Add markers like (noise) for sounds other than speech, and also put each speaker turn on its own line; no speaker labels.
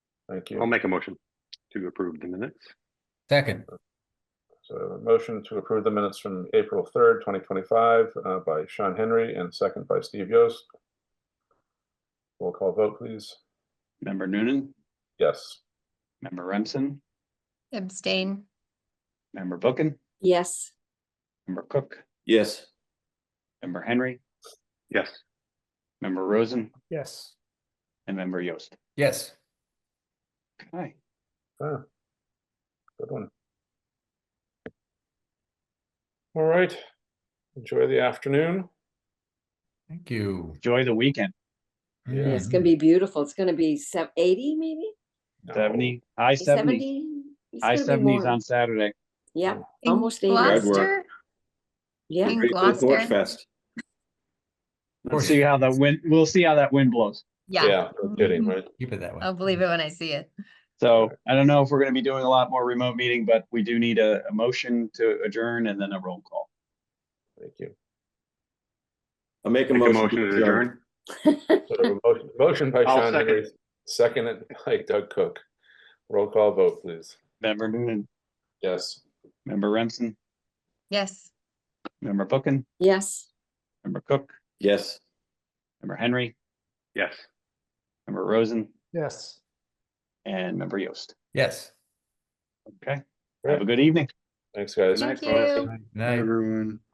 Thank
I'll
you.
make a motion to approve the minutes.
Second,
So a motion to approve the minutes from April third, twenty twenty-five, uh, by Sean Henry and second by Steve Yost. Roll call vote, please.
Member Noonan,
Yes.
member Remsen,
abstain,
member Bookin,
yes,
member Cook,
yes,
member Henry,
Yes,
member Rosen,
yes,
and member Yost.
yes,
Hi,
Ah, Good one. All right. Enjoy the afternoon.
thank you. Mm-hmm.
enjoy the weekend.
Yeah.
it's
Mm-hmm.
gonna be beautiful. It's gonna be sev- eighty maybe?
Seventy, high seventies,
Seventy? It's
high
gonna be
seventies
warm.
on Saturday. (laughs)
Yeah,
in
Almost eighty.
Hard work.
Gloucester,
yeah,
In
ready for
Gloucester.
Porch Fest.
We'll see how that wind, we'll see how that wind blows.
yeah,
Yeah, no kidding,
Mhm.
right?
Keep it that way.
I'll believe it when I see it.
So I don't know if we're gonna be doing a lot more remote meeting, but we do need a, a motion to adjourn and then a roll call.
Thank you.
I'll make a
make a
motion.
motion to adjourn.
So we have a motion- Motion by
I'll
Sean
second.
Henry, seconded by Doug Cook. Roll call vote, please.
Member Noonan,
Yes.
member Remsen,
Yes.
member Bookin,
(laughs) yes.
member Cook,
Yes.
member Henry,
Yes.
member Rosen,
yes.
and member Yost.
Yes.
Okay, have a
Great.
good evening.
Thanks, guys.
Thank
Nice, Melissa.
you.
Night.
Everyone.